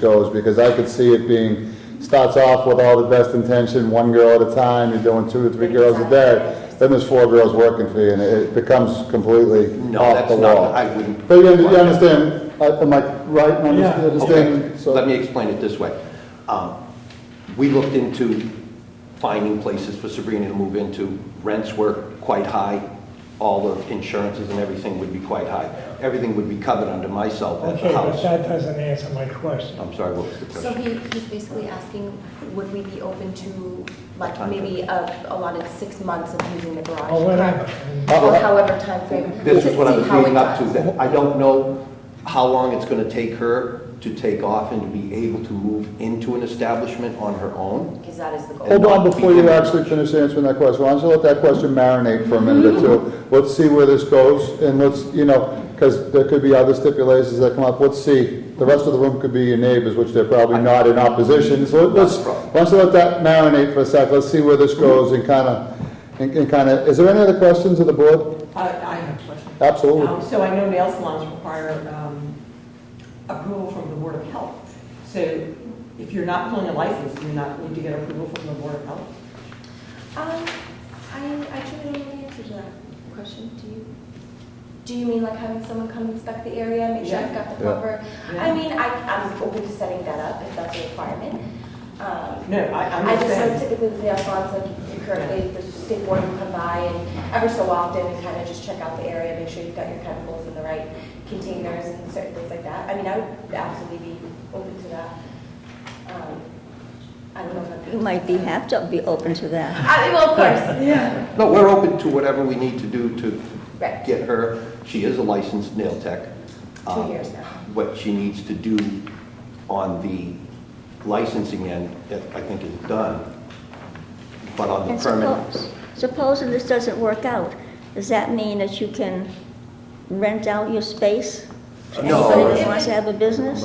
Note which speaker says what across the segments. Speaker 1: goes, because I could see it being, starts off with all the best intention, one girl at a time, you're doing two or three girls a day, then there's four girls working for you, and it becomes completely
Speaker 2: No,
Speaker 1: off
Speaker 2: that's
Speaker 1: the
Speaker 2: not-
Speaker 1: wall.
Speaker 2: I wouldn't-
Speaker 1: But you under- you understand, I- am I right, in under-
Speaker 3: Yeah.
Speaker 2: Okay,
Speaker 1: understanding? So-
Speaker 2: let me explain it this way. Um, We looked into finding places for Sabrina to move into. Rents were quite high, all the insurances and everything would be quite high. Everything would be covered under myself at
Speaker 3: Okay,
Speaker 2: the
Speaker 3: but
Speaker 2: house.
Speaker 3: that doesn't answer my question.
Speaker 2: I'm sorry, what was the
Speaker 4: So
Speaker 2: question?
Speaker 4: he, he's basically asking, would we be open to, like,
Speaker 2: Time
Speaker 4: maybe a allotted six months of using the garage?
Speaker 1: Oh,
Speaker 3: Or whatever.
Speaker 4: Or however timeframe.
Speaker 2: This
Speaker 4: to
Speaker 2: is what I
Speaker 4: see
Speaker 2: was
Speaker 4: how it
Speaker 2: leading up to,
Speaker 4: does.
Speaker 2: that I don't know how long it's going to take her to take off and to be able to move into an establishment on her own.
Speaker 4: Because that is the goal.
Speaker 1: Hold on, before you actually finish answering that question, why don't you let that question marinate for a minute or two? Let's see where this goes, and let's, you know, because there could be other stipulations that come up, let's see. The rest of the room could be your neighbors, which they're probably not in opposition, so let's,
Speaker 2: Not a problem.
Speaker 1: why don't you let that marinate for a sec, let's see where this goes and kind of, and and kind of, is there any other questions of the board?
Speaker 5: I I have a question. Um,
Speaker 1: Absolutely.
Speaker 5: So I know nail salons require um, approval from the Board of Health. So if you're not pulling a license, you're not going to get approval from the Board of Health?
Speaker 4: Um, I, I truly don't know the answer to that question, do you? Do you mean like having someone come inspect the area, make sure I've got the
Speaker 1: Yeah.
Speaker 4: proper?
Speaker 5: Yeah.
Speaker 4: I mean, I, I'm open to setting that up if that's a requirement. Um,
Speaker 5: No, I- I'm
Speaker 4: I
Speaker 5: just
Speaker 4: just know
Speaker 5: saying.
Speaker 4: typically with the Alphons, like currently, the state board will come by and ever so often, we kind of just check out the area, make sure you've got your chemicals in the right containers and certain things like that. I mean, I would absolutely be open to that. Um, I don't know if I'd be.
Speaker 6: You might be, have to be open to
Speaker 2: Uh,
Speaker 6: that.
Speaker 4: I mean, well, of course,
Speaker 5: Yeah.
Speaker 2: No, we're open to whatever we need to do to
Speaker 4: Right.
Speaker 2: get her, she is a licensed nail tech. Um,
Speaker 4: two years now.
Speaker 2: What she needs to do on the licensing end, that I think is done, but on
Speaker 6: And
Speaker 2: the permanent.
Speaker 6: suppose, supposing this doesn't work out, does that mean that you can rent out your space? to
Speaker 2: Uh, No.
Speaker 6: Anybody that wants to have a business?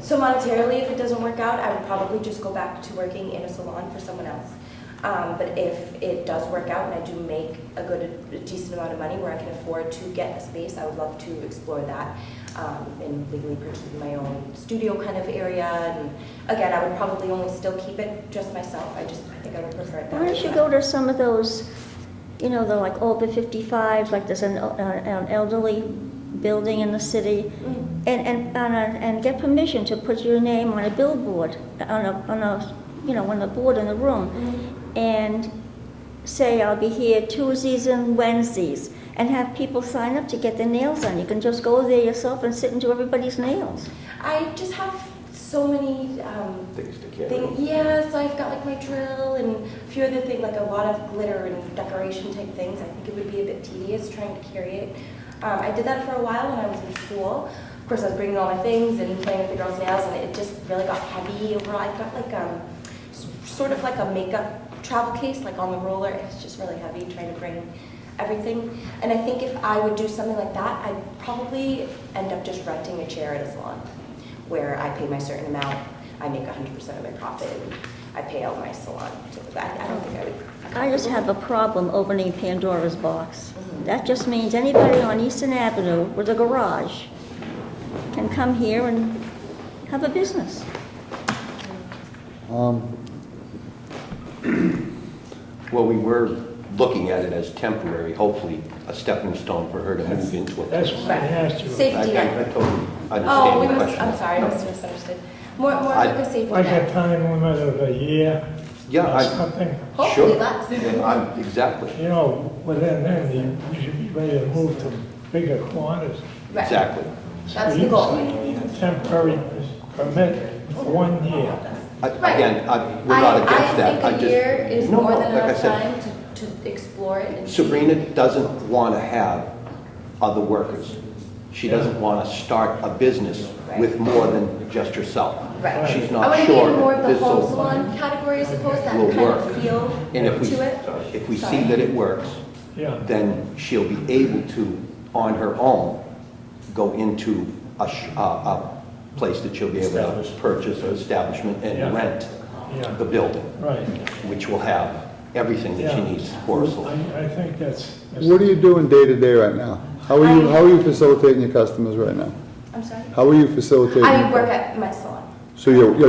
Speaker 4: So monetarily, if it doesn't work out, I would probably just go back to working in a salon for someone else. Um, but if it does work out and I do make a good, a decent amount of money where I can afford to get a space, I would love to explore that. Um, and legally purchase my own studio kind of area. And again, I would probably only still keep it just myself. I just, I think I would prefer it that
Speaker 6: Why don't you go to some of those, you know, the like over 55s, like there's an el- uh, an elderly building in the city,
Speaker 4: Mm-hmm. Mm.
Speaker 6: and, and, and, uh, and get permission to put your name on a billboard, on a, on a, you know, on the board in the room, and say, I'll be here Tuesdays and Wednesdays, and have people sign up to get their nails done. You can just go there yourself and sit and do everybody's nails.
Speaker 4: I just have so many um,
Speaker 2: Things to carry.
Speaker 4: thing, yeah, so I've got like my drill and a few other things, like a lot of glitter and decoration type things. I think it would be a bit tedious trying to carry it. Um, I did that for a while when I was in school. Of course, I was bringing all my things and playing with the girls' nails, and it just really got heavy overall. I've got like um, s- sort of like a makeup travel case, like on the roller. It's just really heavy trying to bring everything. And I think if I would do something like that, I'd probably end up just renting a chair at a salon where I pay my certain amount, I make hundred percent of my profit, and I pay out my salon. So I, I don't think I would.
Speaker 6: I just have a problem opening Pandora's box. That just means anybody on Eastern Avenue with a garage can come here and have a business.
Speaker 1: Um,
Speaker 2: Well, we were looking at it as temporary, hopefully a stepping stone for her to move into a
Speaker 3: That's
Speaker 2: place.
Speaker 3: what I asked you.
Speaker 2: I- I-
Speaker 4: Safety
Speaker 2: I
Speaker 4: net.
Speaker 2: totally
Speaker 4: Oh, we
Speaker 2: understand the
Speaker 4: must, I'm
Speaker 2: question.
Speaker 4: sorry, I must have misunderstood. More, more
Speaker 2: I-
Speaker 4: like a safety
Speaker 3: Like a
Speaker 4: net.
Speaker 3: time limit of a year
Speaker 2: Yeah,
Speaker 3: or
Speaker 2: I,
Speaker 3: something.
Speaker 4: Hopefully
Speaker 2: sure.
Speaker 4: that's.
Speaker 2: Yeah, I'm- Exactly,
Speaker 3: You know, within then, you- you should be ready to move to bigger quarters.
Speaker 4: right.
Speaker 2: exactly.
Speaker 4: That's the
Speaker 3: You-
Speaker 4: goal.
Speaker 3: you need a Temporary permit for one year.
Speaker 2: I-
Speaker 4: Right.
Speaker 2: Again, I, we're not
Speaker 4: I-
Speaker 2: against that.
Speaker 4: I think a
Speaker 2: just-
Speaker 4: year is
Speaker 2: No,
Speaker 4: more
Speaker 2: no,
Speaker 4: than
Speaker 2: like I
Speaker 4: enough
Speaker 2: said,
Speaker 4: time to, to explore it and see.
Speaker 2: Sabrina doesn't want to have other workers. She doesn't want to start a business with more than just herself.
Speaker 4: Right. I want
Speaker 2: She's not
Speaker 4: to be
Speaker 2: sure
Speaker 4: in more of the
Speaker 2: this
Speaker 4: home
Speaker 2: will,
Speaker 4: salon category, I suppose, that
Speaker 2: will
Speaker 4: kind
Speaker 2: work.
Speaker 4: of feel
Speaker 2: And if
Speaker 4: to it.
Speaker 2: we, if we see
Speaker 4: Sorry.
Speaker 2: that it works,
Speaker 3: Yeah.
Speaker 2: then she'll be able to, on her own, go into a, sh- a, a place that she'll be able to purchase an establishment
Speaker 3: Yeah.
Speaker 2: and rent
Speaker 3: Yeah.
Speaker 2: the building,
Speaker 3: Right.
Speaker 2: which will have everything that she
Speaker 3: Yeah.
Speaker 2: needs for a salon.
Speaker 3: I, I think that's. that's-
Speaker 1: What are you doing day to day right now? How are you, how are you facilitating your customers right now?
Speaker 4: I'm sorry.
Speaker 1: How are you facilitating?
Speaker 4: I
Speaker 1: your
Speaker 4: work
Speaker 1: customers?
Speaker 4: at my salon.
Speaker 1: So you're, you're